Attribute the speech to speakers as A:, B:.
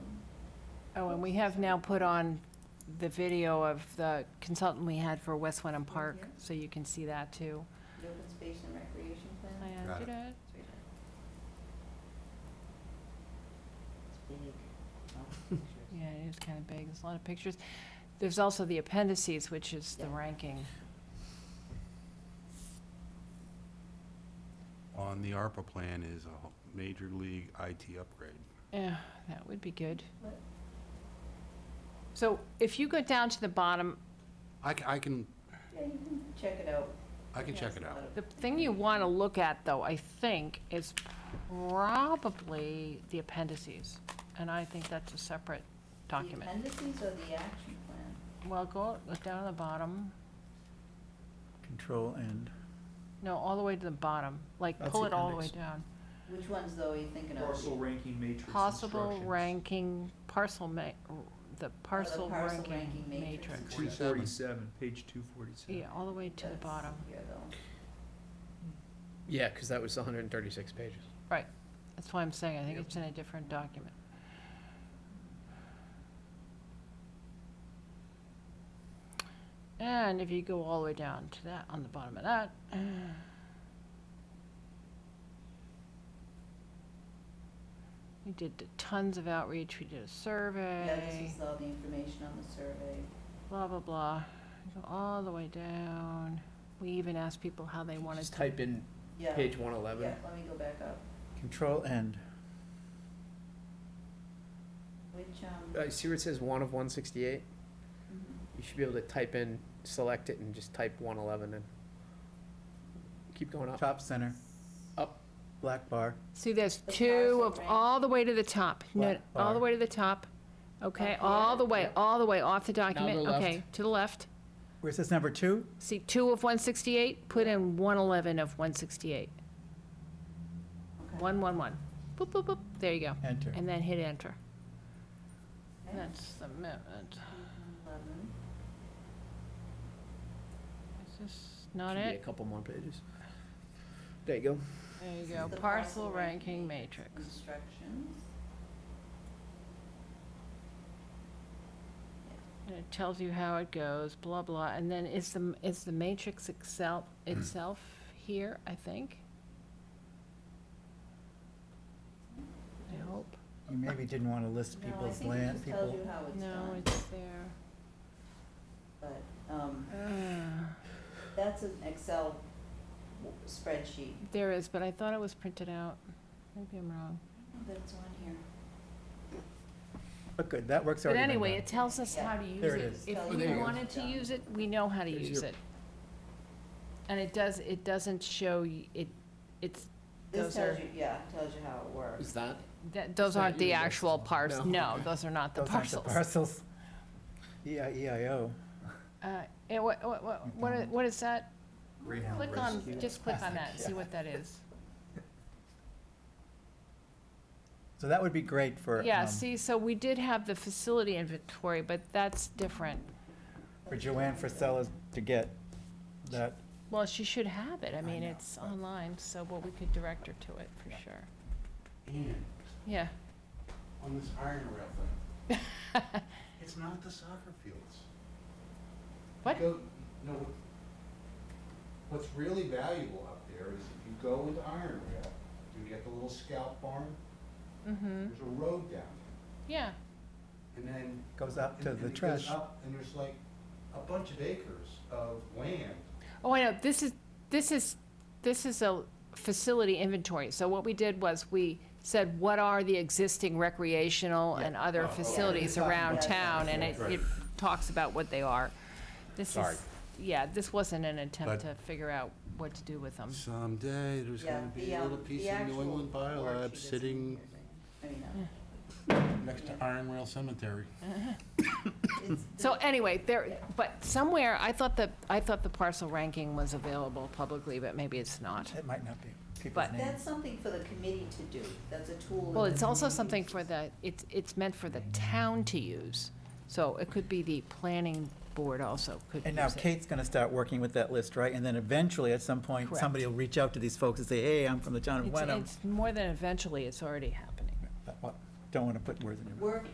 A: Oh, and we have now put on the video of the consultant we had for West Wenham Park, so you can see that too.
B: The open space and recreation
A: I
B: plan?
A: added it.
B: It's right there. It's big.
A: Yeah, it is kind of big, there's a lot of pictures. There's also the appendices, which is the
B: Yeah.
A: ranking.
C: On the ARPA plan is a ho- major league IT upgrade.
A: Yeah, that would be good.
B: What?
A: So if you go down to the bottom,
C: I ca- I can,
B: Yeah, you can check it out.
C: I can
B: Yeah,
C: check
B: it's
C: it
B: a
C: out.
B: lot of-
A: the thing you want to look at, though, I think, is probably the appendices. And I think that's a separate document.
B: The appendices or the action plan?
A: Well, go, look down to the bottom.
D: Control and
A: No, all the way to the bottom, like
D: That's
A: pull
D: the
A: it all the way
D: appendix.
A: down.
B: Which ones though are you thinking of?
E: Parcel ranking matrix
A: Possible
E: instructions.
A: ranking parcel ma, the parcel
B: parcel
A: ranking
B: ranking matrix.
A: matrix.
E: Two
C: 47.
E: forty-seven, page two forty-seven.
A: Yeah, all the way to the
B: That's
A: bottom.
B: Here though.
F: Yeah, because that was 136 pages.
A: That's why I'm saying, I think
F: Yep.
A: it's in a different document. And if you go all the way down to that, on the bottom of that. We did the tons of outreach, we did a
B: Yeah, this
A: survey,
B: is all the information on the survey.
A: blah, blah, blah. Go all the way down. We even asked people how they wanted
F: Just
A: to.
F: type in
B: Yeah,
F: page
B: yeah,
F: 111.
B: let me go back up.
D: control and
B: Which, um,
F: Uh, see where it says 1 of 168?
B: mhm.
F: You should be able to type in, select it, and just type 111 and keep going up.
D: top center.
F: Up.
D: Black bar,
A: See, there's
B: The
A: two
B: parcel
A: of,
B: rank.
A: all the way to the top, no,
D: Black
A: all the
D: bar.
A: way to the top, okay,
B: Up
A: all
B: here,
A: the way,
B: yep.
A: all the way off the document,
F: go left.
A: okay, to the left.
D: where it says number two,
A: See, two of one sixty-eight, put in one eleven of one sixty-eight,
B: Okay.
A: one one one, boop, boop, boop, there you go,
D: enter.
A: and then hit enter.
B: Okay.
A: That's the amendment,
B: Eleven.
A: is this not
F: Should be a
A: it?
F: couple more pages. There you go.
A: There you
B: This
A: go,
B: is the
A: parcel ranking matrix,
B: Instructions.
A: and it tells you how it goes, blah, blah, and then is the, is the matrix itself, itself here, I think? I hope.
D: You maybe didn't want to list
B: No, I
D: people's
B: think it
D: land,
B: just tells
D: people.
B: you how it's
A: No,
B: done,
A: it's there.
B: but, um,
A: Ah,
B: that's an Excel w- spreadsheet.
A: There is, but I thought it was printed out. Maybe I'm wrong.
B: That's on here.
D: But good, that work's
A: But
D: already been
A: anyway,
D: done.
A: it tells us how to use
D: There it
A: it.
D: is.
A: If
B: Oh,
F: there
A: we
F: you go.
A: wanted to use it, we know how to
F: There's
A: use
F: your-
A: it. And it does, it doesn't show, y- it, it's,
B: This
A: Those
B: tells
A: are-
B: you, yeah, tells you how it works.
F: Is that?
A: that, those
F: not
A: aren't the
F: yours,
A: actual
F: that's-
A: parcels.
F: no.
A: No, those are not the
D: Those aren't the
A: parcels.
D: Parcels. E EIEIO.
A: Uh, And what, what, what- what, i- what is that?
E: Greyhound
A: Click on,
E: Rescue.
A: just click on that, see what that is.
D: So that would be great for,
A: Yeah,
D: um,
A: see, so we did have the facility inventory, but that's different.
D: for Joanne Frisella's to get that.
A: Well, she should have it. I
D: I
A: mean,
D: know,
A: it's
D: but-
A: online, so, well, we could direct her to it for sure.
C: And
A: Yeah.
C: on this iron rail thing, it's not the soccer fields.
A: What?
C: You go- No, what- what's really valuable up there is if you go into iron rail, you get the little scalp barn,
A: Mm-hmm.
C: there's a road down
A: Yeah.
C: there. And then.
D: Goes up
C: and-
D: to
C: and
D: the
C: it goes
D: trash.
C: up, And there's like a bunch of acres of land
A: Oh, I know. This is, this is, this is a facility inventory. So what we did was we said, what are the existing recreational and
C: Oh,
A: other
C: okay.
A: facilities
C: Yeah,
A: around
B: yeah,
A: town?
B: yeah,
A: And it,
C: right.
A: it talks about what they are. This
C: Sorry.
A: is, yeah, this wasn't an attempt
C: But-
A: to figure out what to do with them.
C: Someday, there's
B: Yeah,
C: gonna be
B: the,
C: a
B: um,
C: little piece
B: the
C: of New
B: actual
C: England
B: worksheet
C: biolab
B: is
C: sitting
B: in here. I mean, uh,
C: next to Iron Rail Cemetery.
B: uh, it's-
A: So anyway, there, but somewhere, I thought that, I thought the parcel ranking was available publicly, but maybe it's not.
D: It might not be people's
A: But-
D: names.
B: That's something for the committee to do. That's a tool.
A: Well,
B: that
A: it's
B: the
A: also
B: committee
A: something for
B: uses.
A: the, it's, it's meant for the town to use. So it could be the planning board also could
D: And now
A: use it.
D: Kate's going to start working with that list, right? And then eventually, at some point,
A: Correct.
D: somebody will reach out to these folks and say, hey, I'm from the town of
A: It's,
D: Wenham.
A: it's more than eventually, it's already happening.
D: But, well, Don't want to put words in your mouth.
B: Work